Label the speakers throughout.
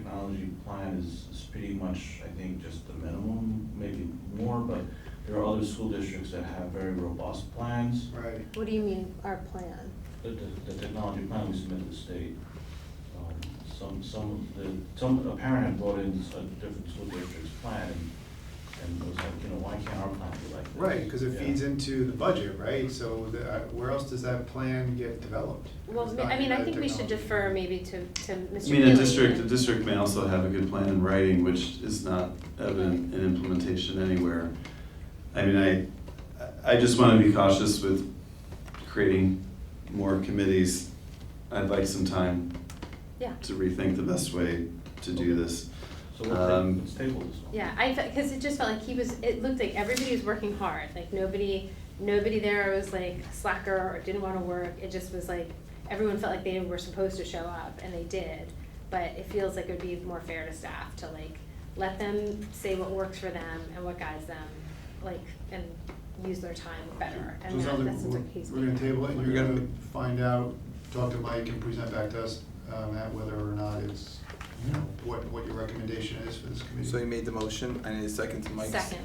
Speaker 1: technology plan is, is pretty much, I think, just the minimum, maybe more, but there are other school districts that have very robust plans.
Speaker 2: Right.
Speaker 3: What do you mean, our plan?
Speaker 1: The, the, the technology plan we submit to the state, um, some, some of the, some, a parent had brought in a different school district's plan and, and was like, you know, why can't our plan be like this?
Speaker 2: Right, because it
Speaker 1: Yeah.
Speaker 2: feeds into the budget, right? So the- uh, where else does that plan get developed? If
Speaker 3: Well,
Speaker 2: it's
Speaker 3: ma-
Speaker 2: not
Speaker 3: I mean, I
Speaker 2: another
Speaker 3: think we should
Speaker 2: technology?
Speaker 3: defer maybe to, to Mr.
Speaker 4: I
Speaker 3: Keely.
Speaker 4: mean, a district, a district may also have a good plan in writing, which is not evident in implementation anywhere. I mean, I, I just want to be cautious with creating more committees. I'd like some time
Speaker 3: Yeah,
Speaker 4: to rethink the best way to do this.
Speaker 1: So let's ta-
Speaker 4: Um,
Speaker 1: let's table this one.
Speaker 3: yeah, I, because it just felt like he was, it looked like everybody was working hard, like nobody, nobody there was like a slacker or didn't wanna work, it just was like, everyone felt like they were supposed to show up, and they did, but it feels like it would be more fair to staff to like, let them say what works for them and what guides them, like, and use their time better,
Speaker 2: So
Speaker 3: and
Speaker 2: it
Speaker 3: that,
Speaker 2: sounds
Speaker 3: that
Speaker 2: like
Speaker 3: seems like he's.
Speaker 2: we're, we're gonna table it, and you're
Speaker 4: We're
Speaker 2: gonna
Speaker 4: gonna-
Speaker 2: find out, talk to Mike and present back to us, um, at whether or not it's, you know, what, what your recommendation is for this committee.
Speaker 5: So you made the motion, I need a second to Mike's.
Speaker 3: Second.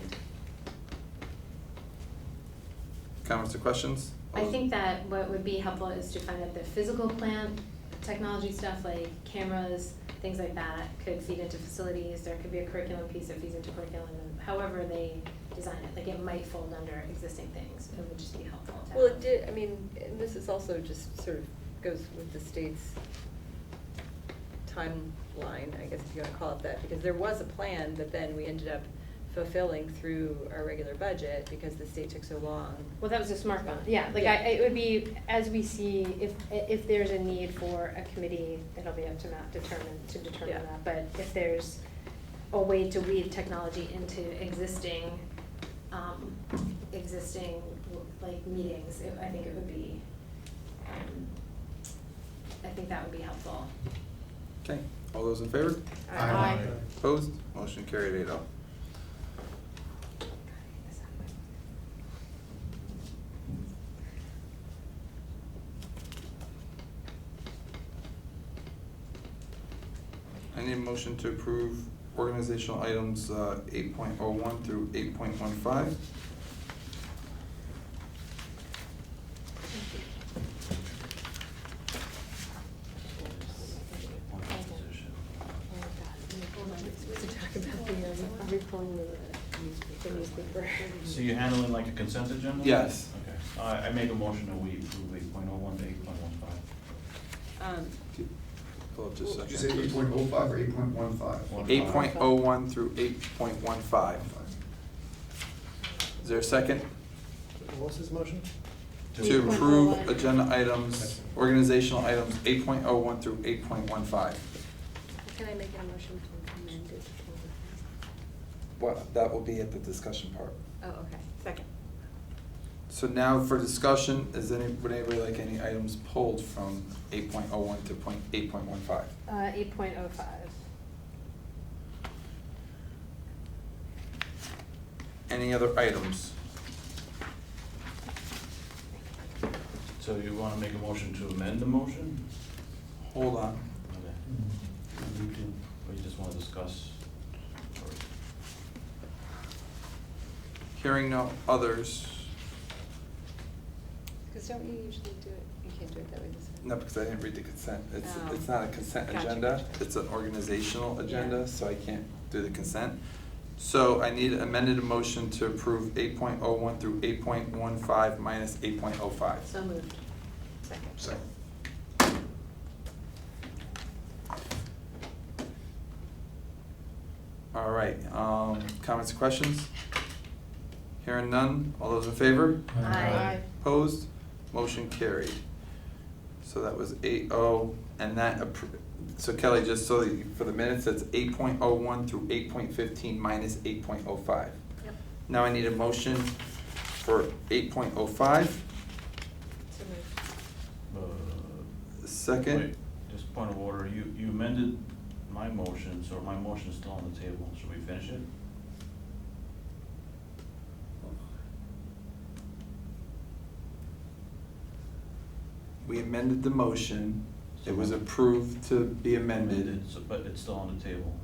Speaker 5: Comments or questions?
Speaker 3: I
Speaker 6: Um,
Speaker 3: think that what would be helpful is to find out the physical plant, technology stuff like cameras, things like that could feed into facilities, there could be a curriculum piece that feeds into curriculum, and however they design it, like it might fold under existing things, it would just be helpful to have.
Speaker 6: Well, it did, I mean, and this is also just sort of goes with the state's timeline, I guess if you wanna call it that, because there was a plan that then we ended up fulfilling through our regular budget because the state took so long.
Speaker 3: Well, that was a smart one, yeah, like I, it would be, as we see, if, if there's a need for a committee, it'll be up to Matt determine, to
Speaker 6: Yeah.
Speaker 3: determine that, but if there's a way to weave technology into existing, um, existing, like, meetings, it- I think it would be, um, I think that would be helpful.
Speaker 5: Okay, all those in favor?
Speaker 6: Aye.
Speaker 3: Aye.
Speaker 5: Opposed? Motion carried eight oh. I need a motion to approve organizational items eight point oh one through eight point one five.
Speaker 3: Oh
Speaker 6: Oh,
Speaker 3: uh,
Speaker 1: So you're handling like a consent agenda?
Speaker 5: Yes.
Speaker 1: Okay, I, I make a motion that we approve eight point oh one to eight point one five.
Speaker 6: Um,
Speaker 5: Hold up just a
Speaker 2: Did you say
Speaker 5: second.
Speaker 2: eight point oh five or eight point one five?
Speaker 5: Eight point oh one through eight point one five. Is there a second?
Speaker 7: What was his motion?
Speaker 5: To approve
Speaker 3: 8.01.
Speaker 5: agenda items, organizational items eight point oh one through eight point one five.
Speaker 6: Can I make a motion to amend it?
Speaker 5: Well, that will be at the discussion part.
Speaker 6: Oh, okay, second.
Speaker 5: So now for discussion, is any, would anybody like any items pulled from eight point oh one to point, eight point one five?
Speaker 3: Uh, eight point oh five.
Speaker 5: Any other items?
Speaker 1: So you wanna make a motion to amend the motion?
Speaker 5: Hold on,
Speaker 1: Okay. Or you just wanna discuss? or-
Speaker 5: hearing no others,
Speaker 6: Because don't you usually do it, you can't do it that way this time?
Speaker 5: no, because I didn't read the consent, it's,
Speaker 6: Oh.
Speaker 5: it's not a consent
Speaker 6: Gotcha,
Speaker 5: agenda,
Speaker 6: gotcha.
Speaker 5: it's an organizational agenda,
Speaker 6: Yeah.
Speaker 5: so I can't do the consent. So I need amended a motion to approve eight point oh one through eight point one five minus eight point oh five.
Speaker 3: So moved.
Speaker 6: Second.
Speaker 5: Second. All right, um, comments or questions? Hearing none, all those in favor?
Speaker 3: Aye.
Speaker 5: Opposed? Motion carried. So that was eight oh, and that, appro- so Kelly, just so that you, for the minutes, that's eight point oh one through eight point fifteen minus eight point oh five.
Speaker 6: Yep.
Speaker 5: Now I need a motion for eight point oh five,
Speaker 6: So moved.
Speaker 1: uh,
Speaker 5: second.
Speaker 1: wait, Just point of order, you, you amended my motion, so my motion is still on the table, should we finish it?
Speaker 5: We amended the motion It was approved to be amended.
Speaker 1: It's- But it's still on the table.